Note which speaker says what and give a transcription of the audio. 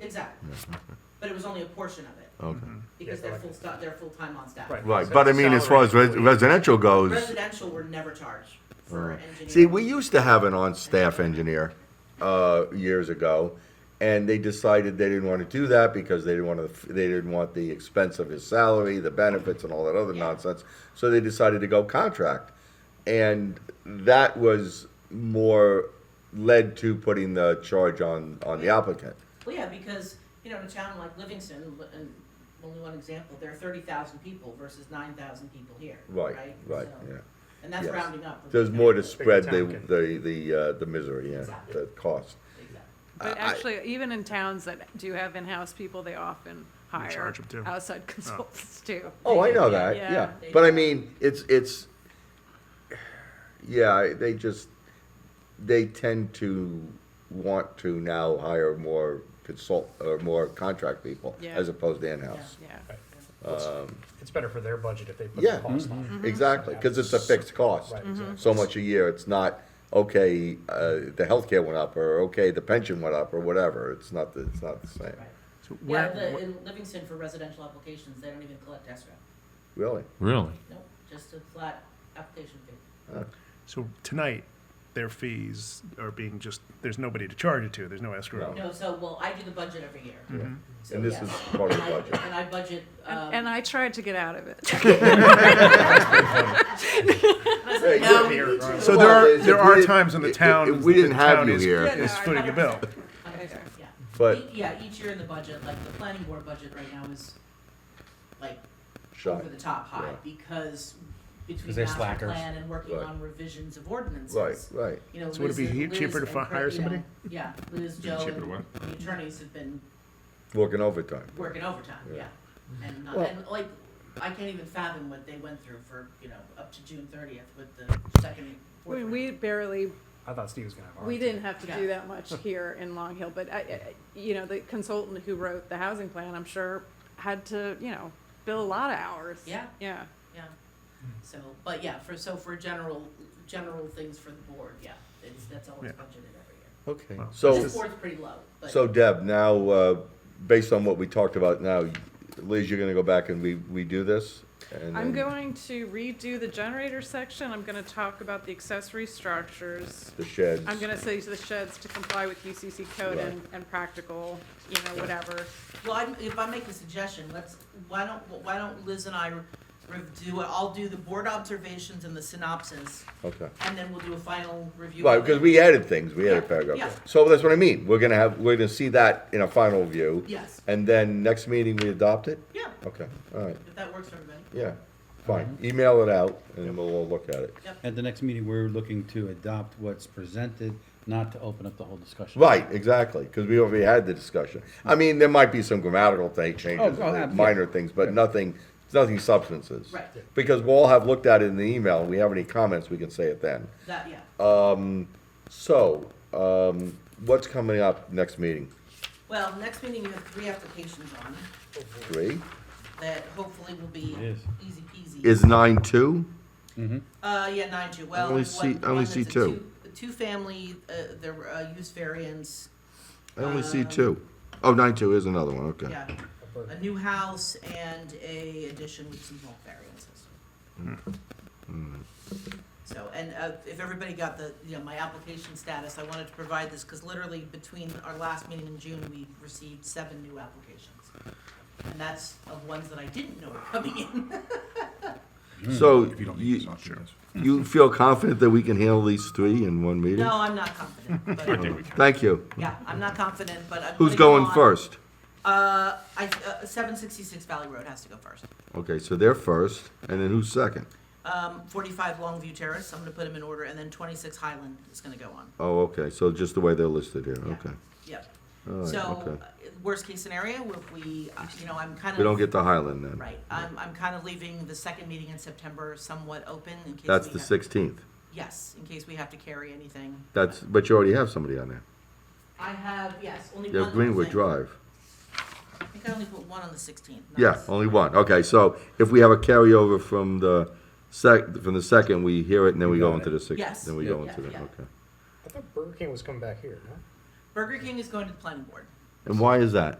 Speaker 1: Exactly, but it was only a portion of it,
Speaker 2: Okay.
Speaker 1: because
Speaker 3: Yeah,
Speaker 1: they're
Speaker 3: correct.
Speaker 1: full, sta- they're full-time on staff.
Speaker 3: Right.
Speaker 2: Right,
Speaker 3: So
Speaker 2: but I mean, as far as
Speaker 3: salary
Speaker 2: res- residential goes,
Speaker 1: Residential were never charged for engineering.
Speaker 2: see, we used to have an on-staff engineer, uh, years ago, and they decided they didn't wanna do that because they didn't wanna, they didn't want the expense of his salary, the benefits and all that other
Speaker 1: Yeah.
Speaker 2: nonsense, so they decided to go contract. And that was more led to putting the charge on, on the applicant.
Speaker 1: Well, yeah, because, you know, in a town like Livingston, li- and only one example, there are thirty thousand people versus nine thousand people here, right?
Speaker 2: Right, right,
Speaker 1: So-
Speaker 2: yeah.
Speaker 1: And that's
Speaker 2: Yes.
Speaker 1: rounding up. for
Speaker 2: There's
Speaker 1: people.
Speaker 2: more to spread the,
Speaker 3: town can-
Speaker 2: the, the, uh, the misery, yeah,
Speaker 1: Exactly.
Speaker 2: the cost.
Speaker 1: Exactly.
Speaker 2: I-
Speaker 4: But
Speaker 2: I-
Speaker 4: actually, even in towns that do have in-house people, they often hire
Speaker 3: charge 'em too.
Speaker 4: outside consultants too.
Speaker 2: Oh, I know
Speaker 1: Yeah,
Speaker 2: that.
Speaker 4: yeah.
Speaker 2: Yeah,
Speaker 1: They
Speaker 2: but I
Speaker 1: do.
Speaker 2: mean, it's it's. Yeah, I- they just they tend to want to now hire more consult or more contract people
Speaker 4: Yeah.
Speaker 2: as opposed to in-house.
Speaker 4: Yeah,
Speaker 3: It's better for their budget if they put
Speaker 2: Um, Yeah, Mm-hmm.
Speaker 3: the cost on.
Speaker 1: Mm-hmm.
Speaker 3: it.
Speaker 2: exactly, because it's a fixed cost. Mm-hmm.
Speaker 3: Right, exactly.
Speaker 2: So much a year. It's not okay. Uh, the healthcare went up, or okay, the pension went up, or whatever. It's not. The, it's not the same.
Speaker 1: Right.
Speaker 5: So
Speaker 1: Yeah,
Speaker 5: where,
Speaker 1: the, in Livingston for residential applications, they don't even collect escrow,
Speaker 2: Really.
Speaker 5: really?
Speaker 1: nope, just a flat application fee.
Speaker 3: So tonight, their fees are being just, there's nobody to charge it to, there's no escrow.
Speaker 1: No, so, well, I do the budget every year. So,
Speaker 2: And this
Speaker 1: yes.
Speaker 2: is part
Speaker 1: And
Speaker 2: of the
Speaker 1: I-
Speaker 2: budget.
Speaker 1: And I budget, um,
Speaker 4: and, and I tried to get out of it.
Speaker 2: Yeah,
Speaker 3: Here, right.
Speaker 2: So
Speaker 3: So
Speaker 2: there Well,
Speaker 3: there
Speaker 2: are-
Speaker 3: are,
Speaker 2: if there
Speaker 3: there
Speaker 2: we are
Speaker 3: are
Speaker 2: didn't-
Speaker 3: times when the town.
Speaker 2: if we didn't the have town you is- here-
Speaker 4: Yeah, no,
Speaker 3: Is
Speaker 4: I-
Speaker 3: footing the bill.
Speaker 1: 100%, yeah.
Speaker 2: But-
Speaker 1: E- Yeah, each year in the budget, like the planning board budget right now is like
Speaker 2: Shot.
Speaker 1: over the top high
Speaker 2: Yeah.
Speaker 1: because between
Speaker 6: 'Cause they're
Speaker 1: master
Speaker 6: slackers.
Speaker 1: plan and working
Speaker 2: Right.
Speaker 1: on revisions of
Speaker 2: Right.
Speaker 1: ordinances.
Speaker 2: Right.
Speaker 1: You know,
Speaker 3: So would it be
Speaker 1: Liz-
Speaker 3: he-
Speaker 1: Liz
Speaker 3: cheaper to
Speaker 1: and
Speaker 3: fi-
Speaker 1: Craig,
Speaker 3: hire
Speaker 1: you know,
Speaker 3: somebody?
Speaker 1: Yeah, Liz,
Speaker 5: Be
Speaker 1: Joe,
Speaker 5: cheaper to
Speaker 1: and
Speaker 5: what?
Speaker 1: the attorneys have been
Speaker 2: Working overtime.
Speaker 1: working overtime, yeah.
Speaker 2: Yeah.
Speaker 1: And, uh,
Speaker 3: Well-
Speaker 1: and like, I can't even fathom what they went through for, you know, up to June thirtieth with the second. and
Speaker 4: I
Speaker 1: fourth
Speaker 4: mean,
Speaker 1: round.
Speaker 4: we barely,
Speaker 3: I thought Steve was gonna have. a
Speaker 4: we
Speaker 3: hard
Speaker 4: didn't
Speaker 3: time.
Speaker 4: have to
Speaker 1: Yeah.
Speaker 4: do that much here in Long Hill, but I, I- you know, the consultant who wrote the housing plan, I'm sure, had to, you know, bill a lot of hours.
Speaker 1: Yeah.
Speaker 4: Yeah.
Speaker 1: Yeah,
Speaker 6: Hmm.
Speaker 1: so, but yeah, for, so for general, general things for the board, yeah, it's, that's always
Speaker 3: Yeah.
Speaker 1: budgeted every year.
Speaker 2: Okay.
Speaker 3: Well,
Speaker 2: So.
Speaker 1: This board's pretty low, but.
Speaker 2: So Deb, now, uh, based on what we talked about now, Liz, you're gonna go back and we, we do this? and
Speaker 4: I'm
Speaker 2: then
Speaker 4: going to redo the generator section. I'm gonna talk about the accessory structures.
Speaker 2: The sheds.
Speaker 4: I'm gonna say to the sheds to comply with UCC code
Speaker 2: Right.
Speaker 4: and, and practical, you know, whatever.
Speaker 1: Well, I, if I make a suggestion, let's, why don't, why don't Liz and I review, I'll do the board observations and the synopsis,
Speaker 2: Okay.
Speaker 1: and then we'll do a final review.
Speaker 2: Right,
Speaker 1: of
Speaker 2: because
Speaker 1: it.
Speaker 2: we added things, we added
Speaker 1: Yeah, yeah.
Speaker 2: paragraphs. So that's what I mean, we're gonna have, we're gonna see that in a final view.
Speaker 1: Yes.
Speaker 2: And then next meeting, we adopt it?
Speaker 1: Yeah,
Speaker 2: Okay, all right,
Speaker 1: if that works for everybody,
Speaker 2: yeah, fine. Email it out and we'll all look at it.
Speaker 6: At the next meeting, we're looking to adopt what's presented, not to open up the whole discussion.
Speaker 2: Right, exactly, because we already had the discussion. I mean, there might be some grammatical thing changes, uh,
Speaker 6: Oh, oh, ab-
Speaker 2: minor things, but nothing, nothing substances.
Speaker 1: Right.
Speaker 2: Because we'll all have looked at it in the email, and we have any comments, we can say it then.
Speaker 1: that, yeah.
Speaker 2: Uh, So, um, what's coming up next meeting?
Speaker 1: Well, next meeting, you have three applications on,
Speaker 2: Three?
Speaker 1: that hopefully will be
Speaker 6: It is.
Speaker 1: easy peasy.
Speaker 2: Is nine two?
Speaker 1: Uh, yeah, nine two, well.
Speaker 2: only
Speaker 1: there's one-
Speaker 2: see- I only
Speaker 1: one that's
Speaker 2: see
Speaker 1: a
Speaker 2: two.
Speaker 1: two- Two-family, uh, there were, uh, use variance,
Speaker 2: I only see two. Oh, nine two is another one, okay.
Speaker 1: Um, yeah, a new house and a addition with some bulk variances.
Speaker 2: Mm.
Speaker 1: So, and uh, if everybody got the, you know, my application status, I wanted to provide this, because literally between our last meeting in June, we received seven new applications. And that's of ones that I didn't know were coming in.
Speaker 2: So,
Speaker 6: Hmm.
Speaker 2: you, you feel confident that we can handle these three in one meeting?
Speaker 1: No, I'm not confident, but,
Speaker 2: Thank you.
Speaker 1: yeah, I'm not confident, but I'm.
Speaker 2: Who's
Speaker 1: putting
Speaker 2: going
Speaker 1: on-
Speaker 2: first?
Speaker 1: Uh, I, uh, seven sixty-six Valley Road has to go first.
Speaker 2: Okay, so they're first, and then who's second?
Speaker 1: Um, forty-five Longview Terrace, I'm gonna put them in order, and then twenty-six Highland is gonna go on.
Speaker 2: Oh, okay, so just the way they're listed here,
Speaker 1: Yeah.
Speaker 2: okay.
Speaker 1: Yep.
Speaker 2: right,
Speaker 1: So,
Speaker 2: okay.
Speaker 1: uh, worst-case scenario, if we, uh, you know, I'm kind of.
Speaker 2: We don't get to Highland then.
Speaker 1: Right, I'm, I'm kind of leaving the second meeting in September somewhat open in case.
Speaker 2: That's
Speaker 1: we
Speaker 2: the
Speaker 1: have-
Speaker 2: sixteenth.
Speaker 1: Yes, in case we have to carry anything.
Speaker 2: That's, but you already have somebody on there.
Speaker 1: I have, yes, only one.
Speaker 2: You have
Speaker 1: little
Speaker 2: Greenwood
Speaker 1: thing.
Speaker 2: Drive.
Speaker 1: I think I only put one on the sixteenth.
Speaker 2: Yeah, only one. Okay, so if we have a carryover from the sec, from the second, we hear it and then we go
Speaker 6: got
Speaker 2: into
Speaker 6: it.
Speaker 2: the sixth,
Speaker 1: Yes.
Speaker 2: then we
Speaker 6: Yeah.
Speaker 2: go
Speaker 1: Yeah,
Speaker 2: into the,
Speaker 1: yeah.
Speaker 2: okay.
Speaker 3: I thought Burger King was coming back here, no?
Speaker 1: Burger King is going to the planning board.
Speaker 2: And why is that?